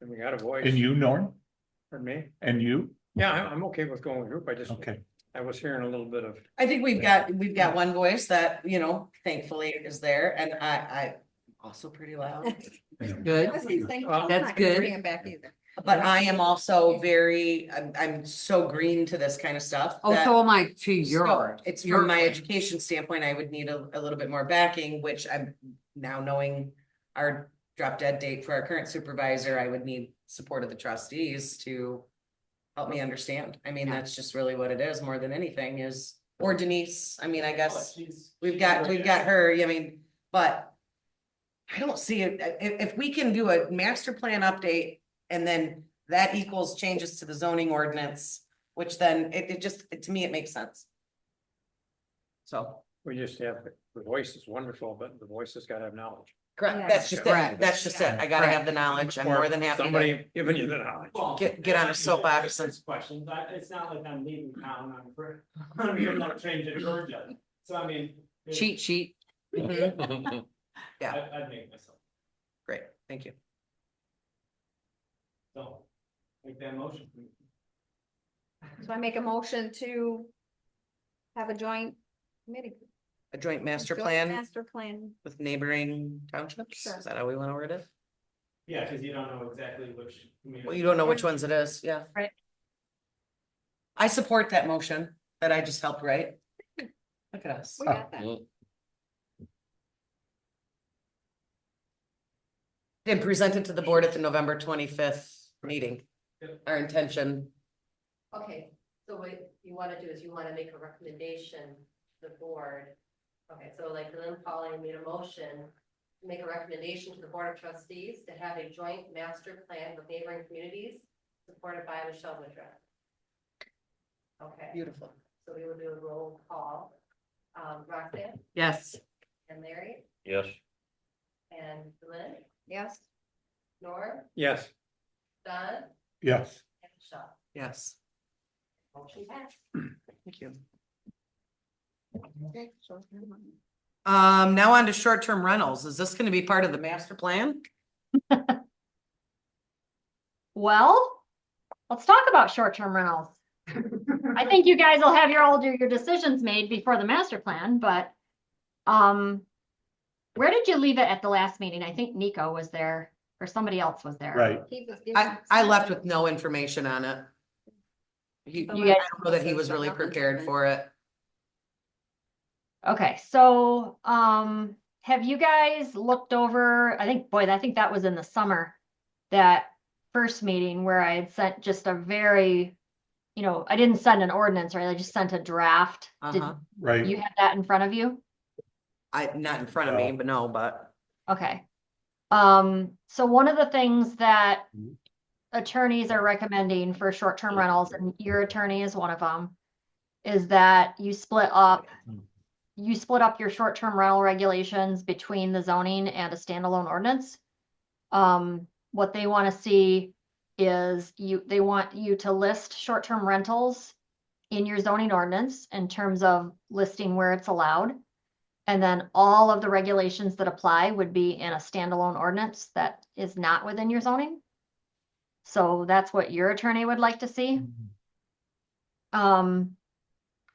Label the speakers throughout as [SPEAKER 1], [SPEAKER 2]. [SPEAKER 1] and we got a voice
[SPEAKER 2] And you, Norm,
[SPEAKER 1] for me.
[SPEAKER 2] and you,
[SPEAKER 1] Yeah, I'm, I'm okay with going with group. I just,
[SPEAKER 2] okay,
[SPEAKER 1] I was hearing a little bit of,
[SPEAKER 3] I think we've got, we've got one voice that, you know, thankfully is there and I, I also pretty loud.
[SPEAKER 4] Good.
[SPEAKER 5] I was gonna say, I'm
[SPEAKER 1] Well,
[SPEAKER 5] not
[SPEAKER 4] that's
[SPEAKER 5] gonna
[SPEAKER 4] good.
[SPEAKER 5] Bring it back either.
[SPEAKER 3] But I am also very, I'm, I'm so green to this kind of stuff.
[SPEAKER 4] Oh,
[SPEAKER 3] that-
[SPEAKER 4] so am I to
[SPEAKER 3] So
[SPEAKER 4] your.
[SPEAKER 3] It's
[SPEAKER 4] your-
[SPEAKER 3] from my education standpoint, I would need a, a little bit more backing, which I'm now knowing our drop dead date for our current supervisor, I would need support of the trustees to help me understand. I mean, that's just really what it is more than anything is, or Denise, I mean, I guess we've got, we've got her, I mean, but I don't see it, I- if, if we can do a master plan update and then that equals changes to the zoning ordinance, which then it, it just, to me, it makes sense. So,
[SPEAKER 1] we just have, the voice is wonderful, but the voice has got to have knowledge.
[SPEAKER 3] correct, that's just it,
[SPEAKER 4] Correct.
[SPEAKER 3] that's just it, I gotta have the knowledge, I'm more than happy to
[SPEAKER 1] Somebody giving you the knowledge.
[SPEAKER 3] get, get on a soapbox and.
[SPEAKER 6] questions, I, it's not like I'm leaving town, I'm, for- I'm here to change in Georgia, so I mean.
[SPEAKER 3] Mm.
[SPEAKER 6] it-
[SPEAKER 4] Cheat sheet.
[SPEAKER 6] I, I'd make myself,
[SPEAKER 3] Great, thank you.
[SPEAKER 6] so, make that motion.
[SPEAKER 5] So I make a motion to have a joint committee.
[SPEAKER 3] A joint master
[SPEAKER 5] Joint
[SPEAKER 3] plan
[SPEAKER 5] Master plan.
[SPEAKER 3] with neighboring townships,
[SPEAKER 5] Sure.
[SPEAKER 3] is that how we wanna word it?
[SPEAKER 6] Yeah, cause you don't know exactly which.
[SPEAKER 3] Well, you don't know which ones it is, yeah.
[SPEAKER 5] Right.
[SPEAKER 3] I support that motion that I just helped write. Look at us.
[SPEAKER 5] We got that.
[SPEAKER 3] And present it to the board at the November twenty-fifth meeting.
[SPEAKER 6] Yep.
[SPEAKER 3] Our intention,
[SPEAKER 7] Okay, so what you wanna do is you wanna make a recommendation to the board. Okay, so like Lynn Polly made a motion to make a recommendation to the Board of Trustees to have a joint master plan with neighboring communities supported by Michelle Woodruff. Okay,
[SPEAKER 3] beautiful.
[SPEAKER 7] so we will do a roll call. Um, Roxanne
[SPEAKER 4] Yes.
[SPEAKER 7] and Larry
[SPEAKER 8] Yes.
[SPEAKER 7] and Lynn,
[SPEAKER 5] Yes,
[SPEAKER 7] Norm,
[SPEAKER 1] Yes,
[SPEAKER 7] Don,
[SPEAKER 2] yes.
[SPEAKER 7] and Michelle.
[SPEAKER 3] Yes,
[SPEAKER 7] Motion passed.
[SPEAKER 3] thank you.
[SPEAKER 5] okay, so,
[SPEAKER 3] Um, now on to short-term rentals. Is this gonna be part of the master plan?
[SPEAKER 9] Well, let's talk about short-term rentals. I think you guys will have your, all your, your decisions made before the master plan, but, um, where did you leave it at the last meeting? I think Nico was there or somebody else was there.
[SPEAKER 2] Right,
[SPEAKER 5] he was
[SPEAKER 3] I,
[SPEAKER 5] giving-
[SPEAKER 3] I left with no information on it. He, I
[SPEAKER 9] You guys-
[SPEAKER 3] don't know that he was really prepared for it.
[SPEAKER 9] Okay, so, um, have you guys looked over, I think, boy, I think that was in the summer. That first meeting where I had sent just a very, you know, I didn't send an ordinance, right? I just sent a draft. Did
[SPEAKER 3] Uh-huh.
[SPEAKER 2] right.
[SPEAKER 9] you have that in front of you?
[SPEAKER 3] I, not in front of me, but no, but.
[SPEAKER 9] Okay. Um, so one of the things that
[SPEAKER 2] Mhm.
[SPEAKER 9] attorneys are recommending for short-term rentals, and your attorney is one of them, is that you split up,
[SPEAKER 2] Mhm.
[SPEAKER 9] you split up your short-term rental regulations between the zoning and a standalone ordinance. Um, what they want to see is you, they want you to list short-term rentals in your zoning ordinance in terms of listing where it's allowed. And then all of the regulations that apply would be in a standalone ordinance that is not within your zoning. So that's what your attorney would like to see. Um,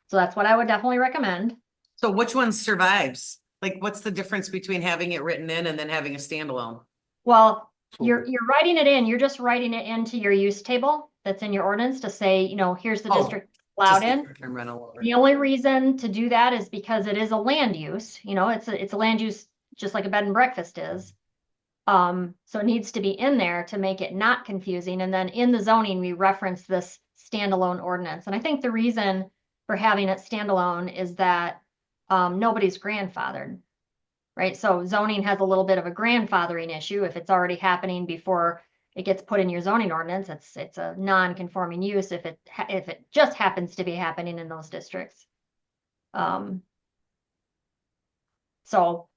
[SPEAKER 9] so that's what I would definitely recommend.
[SPEAKER 3] So which one survives? Like, what's the difference between having it written in and then having a standalone?
[SPEAKER 9] Well, you're, you're writing it in, you're just writing it into your use table that's in your ordinance to say, you know, here's the
[SPEAKER 3] Oh,
[SPEAKER 9] district allowed
[SPEAKER 3] Just
[SPEAKER 9] in.
[SPEAKER 3] the short-term rental or-
[SPEAKER 9] The only reason to do that is because it is a land use, you know, it's a, it's a land use, just like a bed and breakfast is. Um, so it needs to be in there to make it not confusing, and then in the zoning, we reference this standalone ordinance, and I think the reason for having it standalone is that um, nobody's grandfathered. Right, so zoning has a little bit of a grandfathering issue, if it's already happening before it gets put in your zoning ordinance, it's, it's a non-conforming use if it, ha- if it just happens to be happening in those districts. Um. So,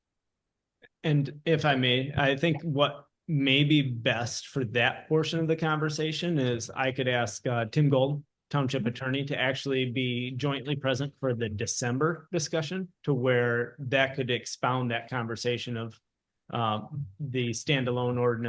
[SPEAKER 6] And if I may, I think what may be best for that portion of the conversation is I could ask uh, Tim Gold, Township Attorney, to actually be jointly present for the December discussion to where that could expound that conversation of um, uh, the standalone ordinance